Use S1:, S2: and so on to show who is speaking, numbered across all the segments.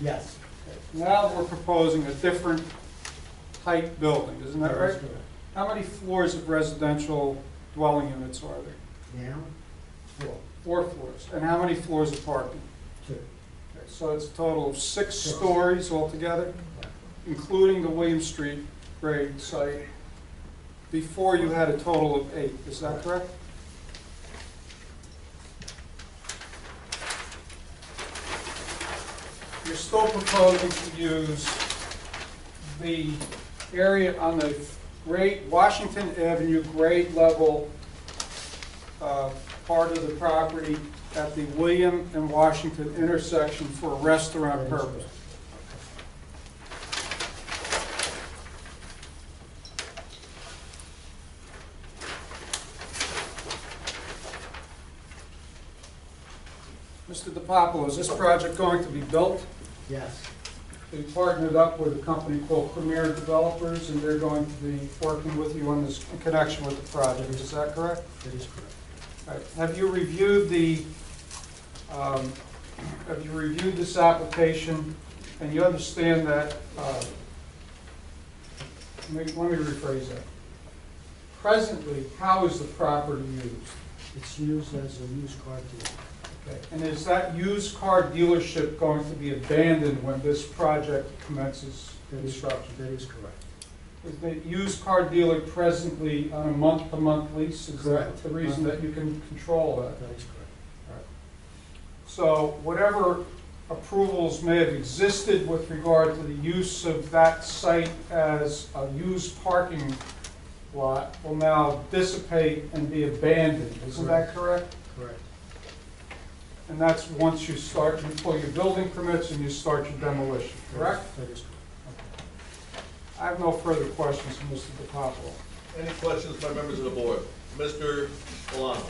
S1: Yes.
S2: Now we're proposing a different height building, isn't that right? How many floors of residential dwelling units are there?
S1: Now, four,
S2: Four floors. And how many floors of parking?
S1: two.
S2: Okay, So it's a total of six
S1: Six.
S2: stories altogether, including the William Street grade site. Before you had a total of eight, is that correct? You're still proposing to use the area on the grade, Washington Avenue grade level uh, part of the property at the William and Washington intersection for a restaurant purpose. Mr. DiPapolo, is this project going to be built?
S1: Yes,
S2: We partnered up with a company called Premier Developers, and they're going to be working with you on this, in connection with the project, is that correct?
S1: that is correct.
S2: All right. Have you reviewed the, um, have you reviewed this application, and you understand that, uh, let me let me rephrase that. Presently, how is the property used?
S1: It's used as a used car dealer.
S2: Okay, And is that used car dealership going to be abandoned when this project commences
S1: That is,
S2: construction?
S1: that is correct.
S2: Is the used car dealer presently on a month-to-month lease? Is that
S1: Correct.
S2: the reason that you can control that?
S1: That is correct.
S2: So whatever approvals may have existed with regard to the use of that site as a used parking lot will now dissipate and be abandoned, isn't that correct?
S1: Correct.
S2: And that's once you start, you pull your building permits and you start your demolition, correct?
S1: That is correct.
S2: I have no further questions from Mr. DiPapolo.
S3: Any questions by members of the board? Mr. Milano?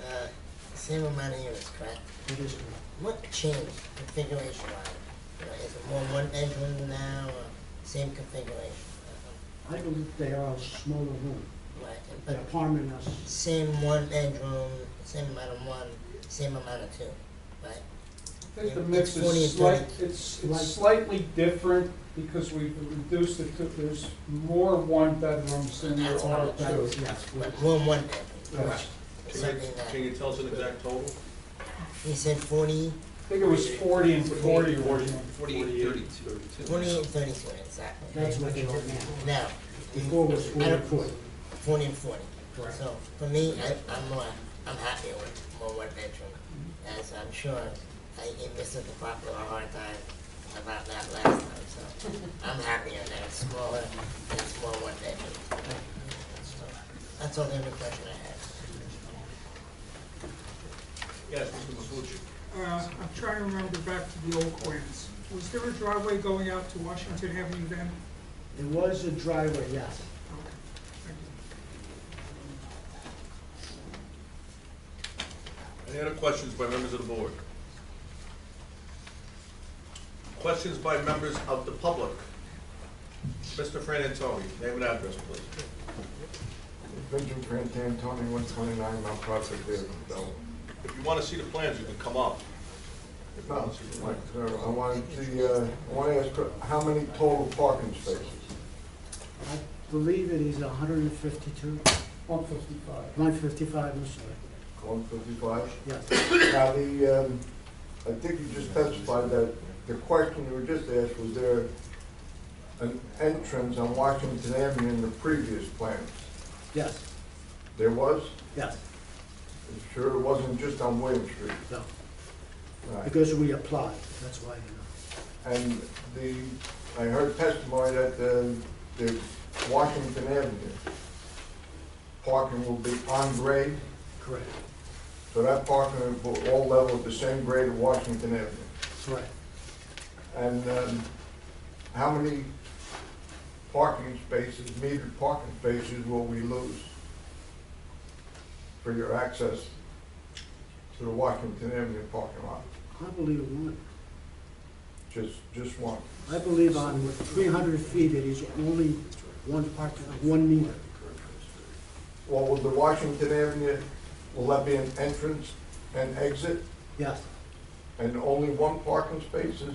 S4: Uh, same amount of units, correct?
S1: That is correct.
S4: What changed configuration-wise? You know, Is it more one bedroom now, or same configuration? Uh,
S1: I believe they are a smaller room,
S4: Right, and-
S1: an
S4: but
S1: apartment as,
S4: same one bedroom, same amount of one, same amount of two, right?
S2: I think the mix
S4: It's 40
S2: is
S4: and
S2: slight,
S4: 30.
S2: it's it's slightly different because we've reduced it to, there's more one-bedrooms than there
S4: That's what
S2: are
S4: I'm trying
S2: two.
S4: to
S1: yes.
S4: But room one bedroom,
S2: Yes.
S3: Can
S4: something
S3: you, can
S4: that,
S3: you tell us an exact total?
S4: he said forty,
S2: I think it was forty and forty originally.
S3: Forty-eight, thirty-two.
S4: twenty and thirty-two, exactly.
S1: That's what they are now.
S4: Now,
S1: Before was
S4: I
S1: forty
S4: don't-
S1: foot.
S4: forty and forty.
S1: Correct.
S4: So for me, I, I'm more, I'm happier with more one bedroom, as I'm sure I gave Mr. DeFalco a hard time about that last time, so I'm happier that it's smaller, and it's more one bedroom. So That's all the only question I have.
S3: Yes, Mr. Mafucci.
S5: Uh, I'm trying to remember back to the old plans. Was there a driveway going out to Washington Avenue then?
S1: It was a driveway, yes.
S5: Thank you.
S3: Any other questions by members of the board? Questions by members of the public? Mr. Fran Antoni, name and address, please.
S6: Benjamin Grant Antoni, one twenty-nine Mount Prospect Avenue, Belleville.
S3: If you want to see the plans, you can come up.
S6: Like, uh, I wanted to, uh, I want to ask, uh, how many total parking spaces?
S1: I believe it is hundred and fifty-two,
S2: One fifty-five.
S1: one fifty-five, I'm sorry.
S6: One fifty-five?
S1: Yes,
S6: Now, the, um, I think you just testified that the question you were just asked, was there an entrance on Washington Avenue in the previous plans?
S1: yes,
S6: There was?
S1: yes,
S6: Sure, it wasn't just on William Street?
S1: no.
S6: Right.
S1: Because we applied, that's why, you know.
S6: And the, I heard testimony that the, the Washington Avenue parking will be on grade,
S1: Correct,
S6: so that parking will all level at the same grade of Washington Avenue.
S1: correct.
S6: And, um, how many parking spaces, metered parking spaces will we lose for your access to the Washington Avenue parking lot?
S1: I believe one.
S6: Just, just one.
S1: I believe on three hundred feet, it is only one part, one meter.
S6: Well, with the Washington Avenue, will that be an entrance and exit?
S1: Yes,
S6: and only one parking space is